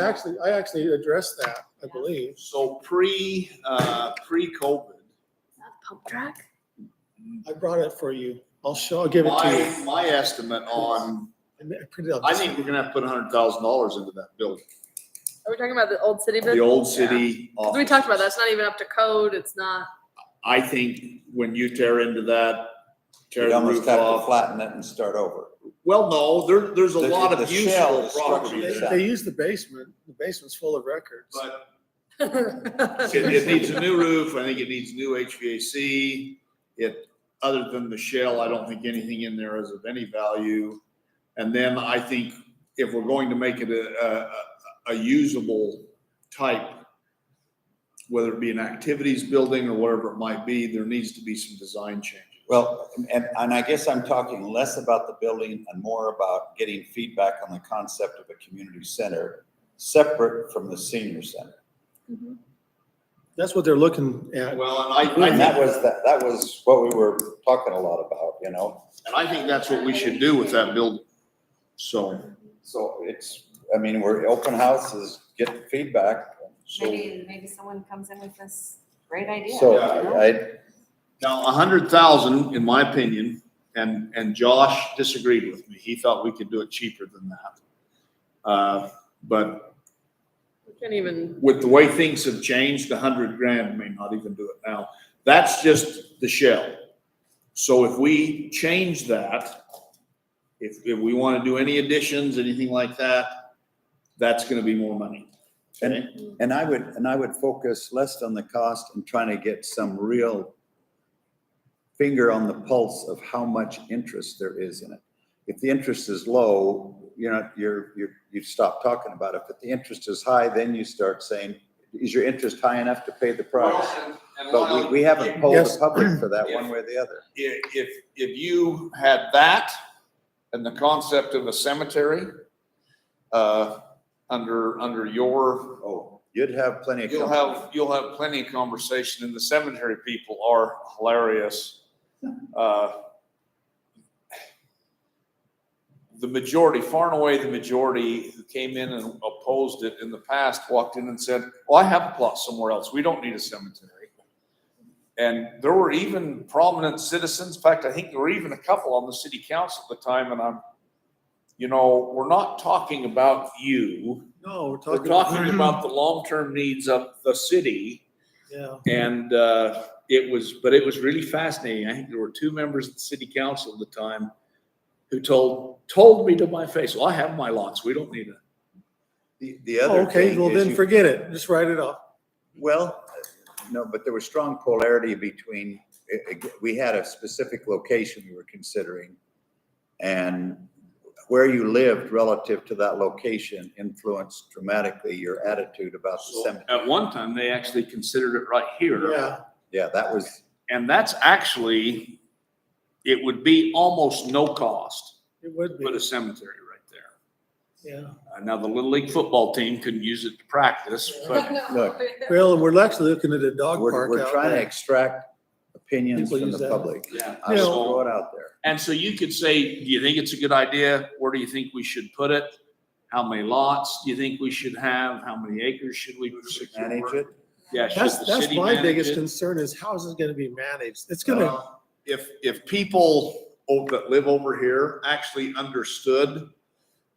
Actually, I actually addressed that, I believe. So pre, uh, pre-COVID, Pump track? I brought it for you. I'll show, I'll give it to you. my, my estimate on, I mean, I printed out I this- think we're gonna have to put a hundred thousand dollars into that building, Are we talking about the old city? the old city. Yeah. We talked about that. offices. It's not even up to code. It's not. I think when you tear into that, tear You'd the almost roof have to off. flatten it and start over. Well, no, there, there's a The- lot the of shell, useful the structure property They, is there, that. they use the basement. The basement's full of records. but It It, it needs a new roof, I think it needs new HVAC. It, other than the shell, I don't think anything in there is of any value. And then I think if we're going to make it a, a, a usable type, whether it be an activities building or whatever it might be, there needs to be some design changes. Well, and, and I guess I'm talking less about the building and more about getting feedback on the concept of a community center separate from the senior center. That's what they're looking at. Well, and I, I And that think, was, that, that was what we were talking a lot about, you know? and I think that's what we should do with that building. So, So it's, I mean, we're, open houses, get feedback. So, Maybe, maybe someone comes in with this great idea. so you know? I, now a hundred thousand, in my opinion, and, and Josh disagreed with me. He thought we could do it cheaper than that. Uh, But We Can't even, with the way things have changed, a hundred grand may not even do it now. That's just the shell. So if we change that, if, if we want to do any additions, anything like that, that's going to be more money. and, and I would, and I would focus less on the cost and trying to get some real finger on the pulse of how much interest there is in it. If the interest is low, you know, you're, you're, you stop talking about it, but the interest is high, then you start saying, is your interest high enough to pay the price? But we, we haven't polled the Yes. public for that one way or the other. i- if, if you had that and the concept of a cemetery, uh, under, under your, Oh, you'd have plenty of. you'll company. have, you'll have plenty of conversation and the cemetery people are hilarious. Uh, The majority, far and away, the majority who came in and opposed it in the past walked in and said, well, I have a plot somewhere else. We don't need a cemetery. And there were even prominent citizens, in fact, I think there were even a couple on the city council at the time, and I'm, you know, we're not talking about you. No, we're We're talking. talking about the long-term needs of the city. Yeah. And uh, it was, but it was really fascinating. I think there were two members of the city council at the time who told, told me to my face, well, I have my lots. We don't need it. The, the other Oh, Okay, thing well is then you- forget it. Just write it off. Well, no, but there was strong polarity between, it- it- we had a specific location we were considering. And where you lived relative to that location influenced dramatically your attitude about the cemetery. At one time, they actually considered it right here. Yeah. Yeah, that was, And that's actually, it would be almost no cost It would to put be, a cemetery right there. yeah. Uh, Now, the Little League football team couldn't use it to practice, but Look, Well, and we're actually looking at a dog we're, park we're out trying to there. extract opinions People from use the that. public. yeah. I'll Yeah. just so- throw it out there. And so you could say, do you think it's a good idea? Where do you think we should put it? How many lots do you think we should have? How many acres should we secure? Manage it. Yeah, should That's, the that's city my manage biggest it? concern is how is it gonna be managed? It's gonna, Uh, If, if people o- that live over here actually understood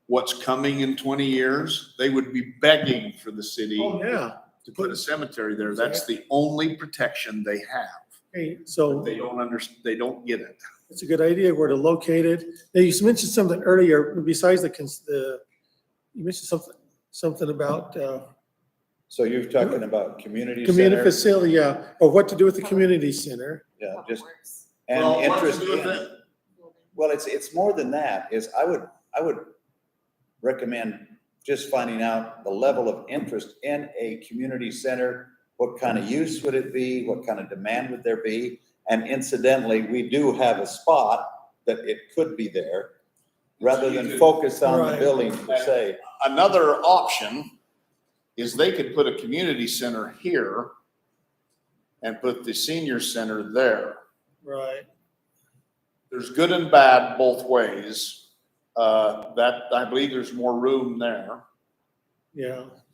what's coming in twenty years, they would be begging for the city oh, to yeah. put a cemetery there. That's the only protection they have. Hey, so They don't under, they don't get it. it's a good idea where to locate it. Now, you mentioned something earlier besides the, cons- the, you mentioned something, something about, uh, So you're talking about community community center facility, yeah, or what to do with the community center. Yeah, Public just, Works and Well, what to interest do with in. it? building. Well, it's, it's more than that, is I would, I would recommend just finding out the level of interest in a community center. What kind of use would it be? What kind of demand would there be? And incidentally, we do have a spot that it could be there, rather than focus on the Right. building per se. another option is they could put a community center here and put the senior center there. Right. There's good and bad both ways. Uh, that, I believe there's more room there. yeah.